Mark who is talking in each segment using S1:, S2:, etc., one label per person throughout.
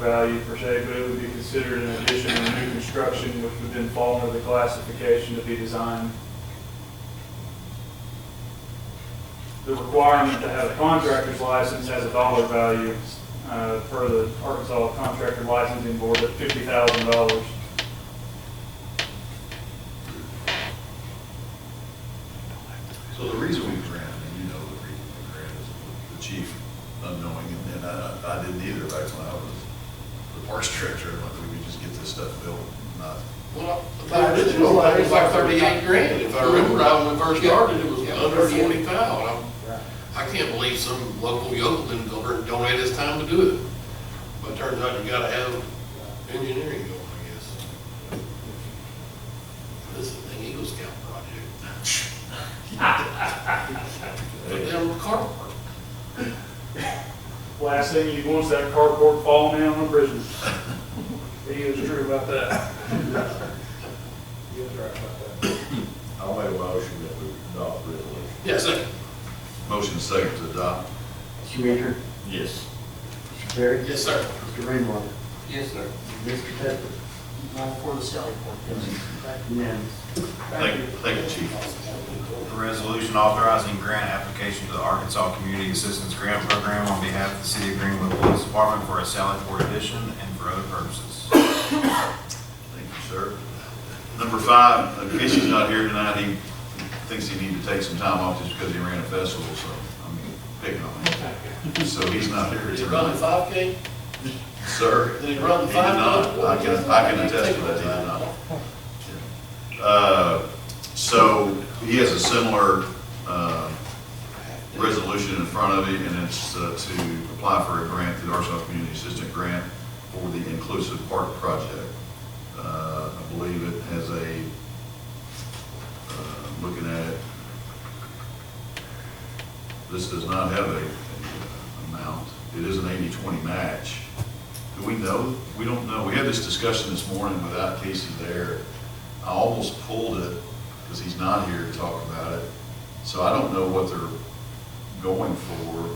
S1: value per se, but it would be considered an addition and new construction, which would then fall under the classification to be designed. The requirement to have a contractor's license has a dollar value, uh, per the Arkansas Contractor Licensing Board at fifty thousand dollars.
S2: So the reason we ran, and you know the reason we ran is the chief unknowing, and then I, I didn't either back when I was the parks director, and like, we could just get this stuff built, not,
S3: Well, the original, it was like thirty-eight grand, if I remember, right when we first started, it was
S4: Yeah.
S3: under forty thousand.
S4: Right.
S3: I can't believe some local yokel didn't go over and donate his time to do it, but turns out you gotta have engineering going, I guess. This is an Eagle Scout project. Put down the carport.
S1: Last thing you want is that cardboard falling down on Brisbane. He is true about that.
S4: He was right about that.
S5: I'll make a motion that we adopt the resolution.
S3: Yes, sir.
S2: motion second to adopt.
S6: Mr. Baker,
S2: Yes.
S6: Mr. Perry,
S3: Yes, sir.
S6: Mr. Rainwater,
S4: Yes, sir.
S6: Mr. Pepper,
S4: Not for the selling point, yes. Thank you.
S6: unanimous.
S2: Thank, thank you, chief.
S7: A resolution authorizing grant application to the Arkansas Community Assistance Grant Program on behalf of the City of Greenwood Police Department for a Sally Port addition and for other purposes.
S2: Thank you, sir. Number five, uh, Casey's not here tonight, he thinks he needs to take some time off just because he ran a festival, so I'm picking on him. So he's not here
S3: Did he run the
S2: tonight.
S3: five K?
S2: Sir?
S3: Did he run
S2: He
S3: the
S2: did
S3: five K?
S2: not. I can- I can attest to that, he did not. Uh, So he has a similar uh, resolution in front of him, and it's uh, to apply for a grant, the Arkansas Community Assistant Grant for the Inclusive Park Project. Uh, I believe it has a, uh, looking at it, this does not have a a amount. It is an 80-20 match. Do we know? We don't know. We had this discussion this morning without Casey there. I almost pulled it because he's not here to talk about it. So I don't know what they're going for.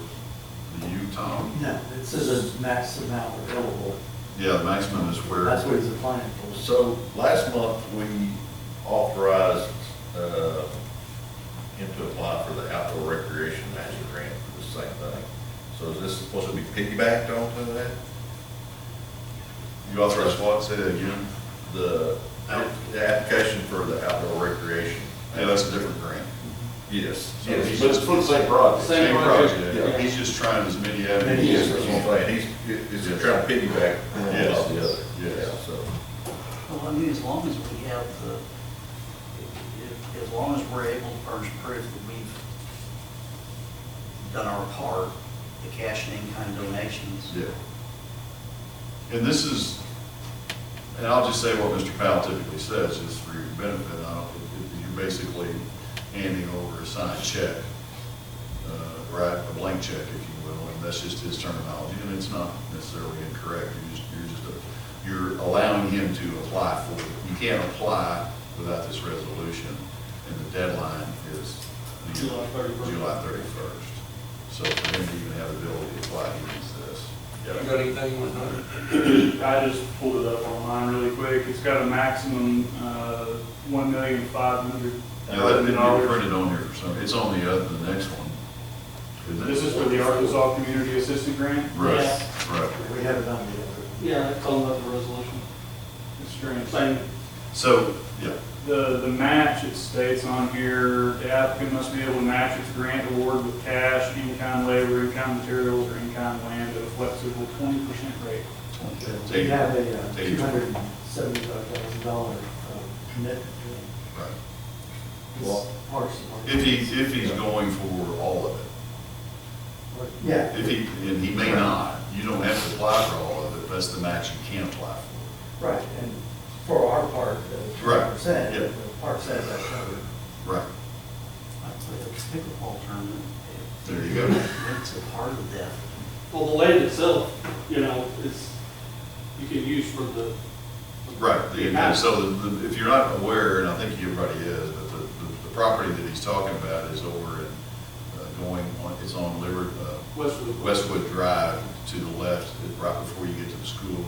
S2: The U, Tom?
S6: No, this is a max amount available.
S2: Yeah, the maximum is where.
S6: That's what he's applying for.
S5: So last month, we authorized uh, him to apply for the outdoor recreation master grant for the same thing. So is this supposed to be piggybacked onto that?
S2: You authorized what? Say that again?
S5: The, app- the application for the outdoor recreation?
S2: Yeah, that's a different grant.
S5: Yes.
S2: Yeah, but it's
S5: for the same project.
S2: Same
S5: yeah.
S2: He's just trying as many
S6: Many
S2: avenues.
S5: Yes,
S2: as
S5: that's
S2: he
S5: what I'm saying, he's, he's just trying to piggyback one off the other.
S2: Yes, yes.
S5: Yeah, so.
S4: Well, I mean, as long as we have the, if- if- as long as we're able to furnish proof that we've done our part, the cash and in-kind donations.
S2: Yeah. And this is, and I'll just say what Mr. Powell typically says, is for your benefit, I don't, you're basically handing over a signed check, uh, right, a blank check, if you will, and that's just his terminology, and it's not necessarily incorrect, you're just, you're just, a- you're allowing him to apply for it. You can't apply without this resolution, and the deadline is. the-
S1: July 31st.
S2: July thirty-first. So for him to even have the ability to apply, he needs this.
S3: You got anything with that?
S1: I just pulled it up online really quick. It's got a maximum, uh, one million five hundred
S2: Yeah, that
S1: thousand
S2: didn't get
S1: dollars.
S2: printed on here for some, it's on the, uh, the next one. Isn't it?
S1: This is for the Arkansas Community Assistance Grant.
S2: Right, right.
S6: We have it on the other.
S8: Yeah, it's all about the resolution.
S1: It's strange.
S8: Same,
S2: So, yeah,
S1: The, the match, it states on here, the applicant must be able to match its grant award with cash, in-kind labor, in-kind materials, or in-kind land at a flexible twenty percent rate.
S6: We
S2: Take-
S6: have a uh,
S2: Take it.
S6: $275,000 commitment
S2: right.
S6: to
S5: Well,
S6: this parcel.
S2: If he, if he's going for all of it,
S6: Yeah.
S2: if he, and he may not, you don't have to apply for all of it, that's the match you can apply for.
S6: Right, and for our part, the
S2: Right,
S6: twenty percent,
S2: yeah.
S6: the park says that covered.
S2: Right,
S4: Like the pickleball tournament,
S2: there you go.
S4: it's a part of that.
S8: well, the land itself, you know, is, you can use for the.
S2: Right, the- and so the- the- if you're not aware, and I think everybody is, but the, the- the property that he's talking about is over in, uh, going on, it's on Liver, uh,
S8: Westwood.
S2: Westwood Drive to the left, right before you get to the school,